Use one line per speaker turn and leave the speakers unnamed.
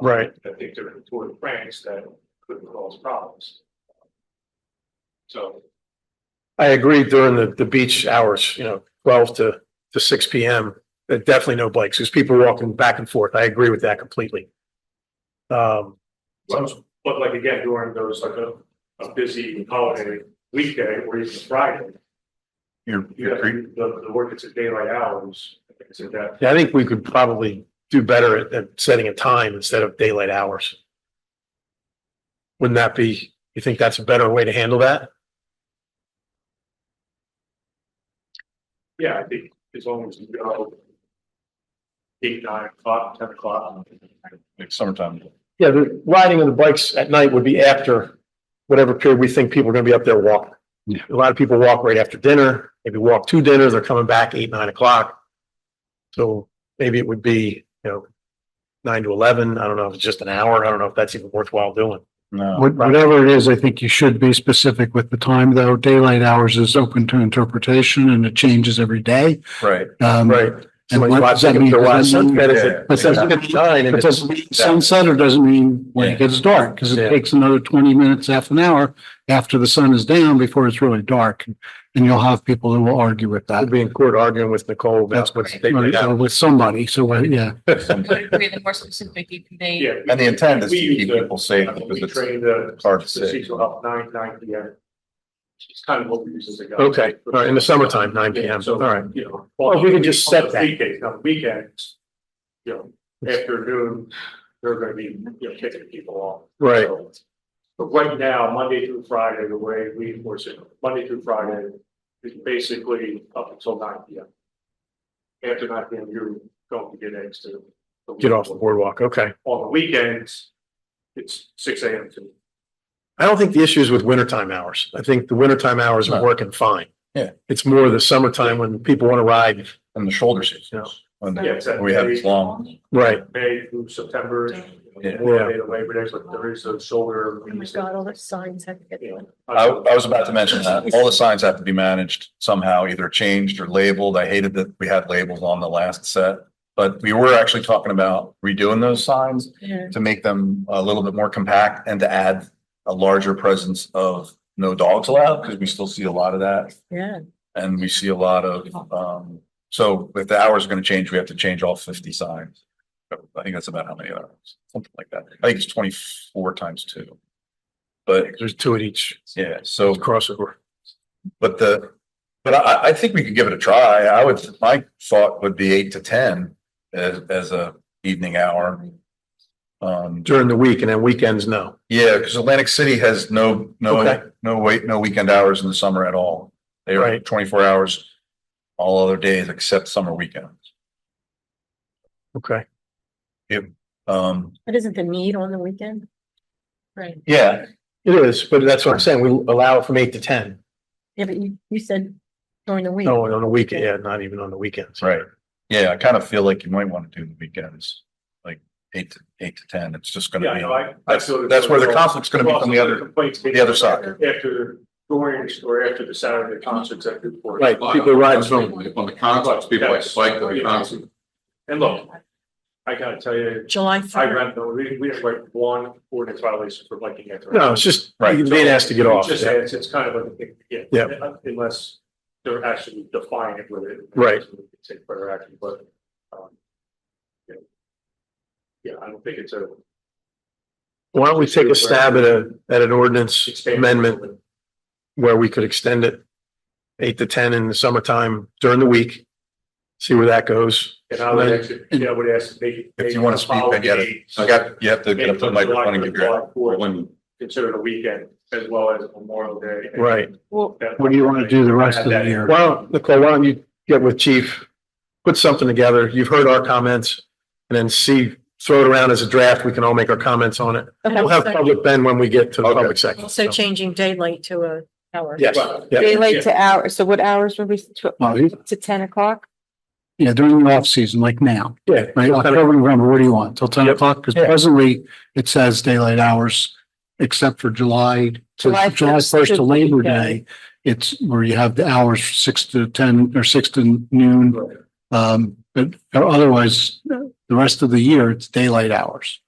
Right.
Um, I think there are Tour de France that could cause problems. So,
I agree during the, the beach hours, you know, twelve to, to six P M. uh, Definitely no bikes, because people are walking back and forth. I agree with that completely. Um,
but but like again, during those like a, a busy holiday weekday or even Friday.
You're,
You have
you're,
the, the work, it's at daylight hours, it's at that,
yeah, I think we could probably do better at, at setting a time instead of daylight hours. Wouldn't that be, you think that's a better way to handle that?
yeah, I think as long as you go. Eight, nine o'clock, ten o'clock.
like summertime,
Yeah, the riding of the bikes at night would be after whatever period we think people are gonna be up there walking.
Yeah.
A lot of people walk right after dinner, maybe walk two dinners, they're coming back eight, nine o'clock. So maybe it would be, you know, nine to eleven, I don't know if it's just an hour, I don't know if that's even worthwhile doing. Uh,
no.
What- Whatever it is, I think you should be specific with the time, though. Daylight hours is open to interpretation and it changes every day.
Right.
Um,
Right. Somebody's
what does that
watching if
mean?
they're watching
Does that
sunset,
mean-
is
Yeah.
it-
But
it's
does
at
it
nine and
But
it's-
doesn't mean sunset or doesn't mean when
Yeah.
it gets dark, because
Yeah.
it takes another twenty minutes, half an hour after the sun is down before it's really dark. And you'll have people who will argue with
I'd
that.
be in court arguing with Nicole, that's what they
Or
did.
or with somebody, so, uh, yeah.
And
would agree the more specific you can be.
Yeah.
the intent is to
We use
keep
the-
people safe
I mean,
because
We
it's
train the
hard to
The
see.
seats are up nine, nine P M. It's kind of what we use as a guide.
Okay, all right, in the summertime, nine P M,
So,
all right.
You know.
Well, if we could just
on the
set that.
Weekdays, not weekends. You know, after noon, they're gonna be, you know, kicking people off.
Right.
So, But right now, Monday through Friday, the way we enforce it, Monday through Friday is basically up until nine P M. After nine P M, you're going to get eggs to.
Get off the boardwalk, okay.
On the weekends, it's six A M to
I don't think the issue is with wintertime hours. I think the wintertime hours are
No.
working fine.
Yeah.
It's more the summertime when people want to ride.
in the shoulder
Yeah.
seasons. When
Yeah, it's that
we have
day.
long,
Right.
May through September.
Yeah.
Labor Day, to Labor Day, but there is a shoulder. Uh,
Oh my God, all the signs have to get.
You know,
I, I was about to mention that. All the signs have to be managed somehow, either changed or labeled. I hated that we had labels on the last set. But we were actually talking about redoing those signs
Yeah.
to make them a little bit more compact and to add a larger presence of no dogs allowed, because we still see a lot of that.
Yeah.
And we see a lot of, um, so if the hours are gonna change, we have to change all fifty signs. I think that's about how many hours, something like that. I think it's twenty-four times two. But
There's two at each
yeah, so,
crossover.
but the, but I, I think we could give it a try. I would, my thought would be eight to ten as, as a evening hour. Um,
During the week and then weekends, no.
yeah, because Atlantic City has no,
Okay.
no, no wait, no weekend hours in the summer at all. They are
Right.
twenty-four hours all other days except summer weekends.
Okay.
Um,
But isn't the need on the weekend? Right.
yeah,
It is, but that's what I'm saying. We allow it from eight to ten.
Yeah, but you, you said during the week.
No, and on the weekend, yeah, not even on the weekends.
right. Yeah, I kind of feel like you might want to do the weekends, like eight to, eight to ten. It's just
Yeah,
gonna
I
be,
know, I- I
that's,
feel that-
that's where the conflict's gonna be from the
Also,
other,
complaints
the other side.
After Orange or after the Saturday concerts at the port.
Right, people ride from,
On the concerts, people like to bike to the concert.
And look, I gotta tell you,
July
I
third.
ran, the- we, we have like one ordinance violation for biking. after-
no, it's just,
Right.
being asked to get off.
Just,
Yeah.
it's, it's kind of like, a thing, yeah.
Yeah.
Unless they're actually defining it with it.
Right.
Take further action, but, um. Yeah, Yeah, I don't think it's a.
Why don't we take a stab at a, at an ordinance amendment where we could extend it eight to ten in the summertime during the week? See where that goes.
And I would actually, yeah, I would ask. If
If you wanna speak, I get it. I got, you have to get up to the microphone and give your,
When-
Consider the weekend as well as Memorial Day.
Right.
Well,
That-
What do you want to do the rest of the year?
Why don't, Nicole, why don't you get with chief, put something together, you've heard our comments, and then see, throw it around as a draft, we can all make our comments on it. We'll have public Ben when we get to the
Okay.
public section.
also
so.
changing daylight to a hour.
Yes,
Right.
yeah,
Daylight to hours, so what hours were we, to,
Well, you-
to ten o'clock?
Yeah, during the off season, like now,
yeah,
right? October, November, what do you want? Till ten
Yep.
o'clock? Because
Yeah.
presently it says daylight hours, except for July
July
to July
first
first to
to
Labor
weekend.
Day. It's where you have the hours six to ten or six to noon. Um, but otherwise, the rest of the year, it's daylight hours.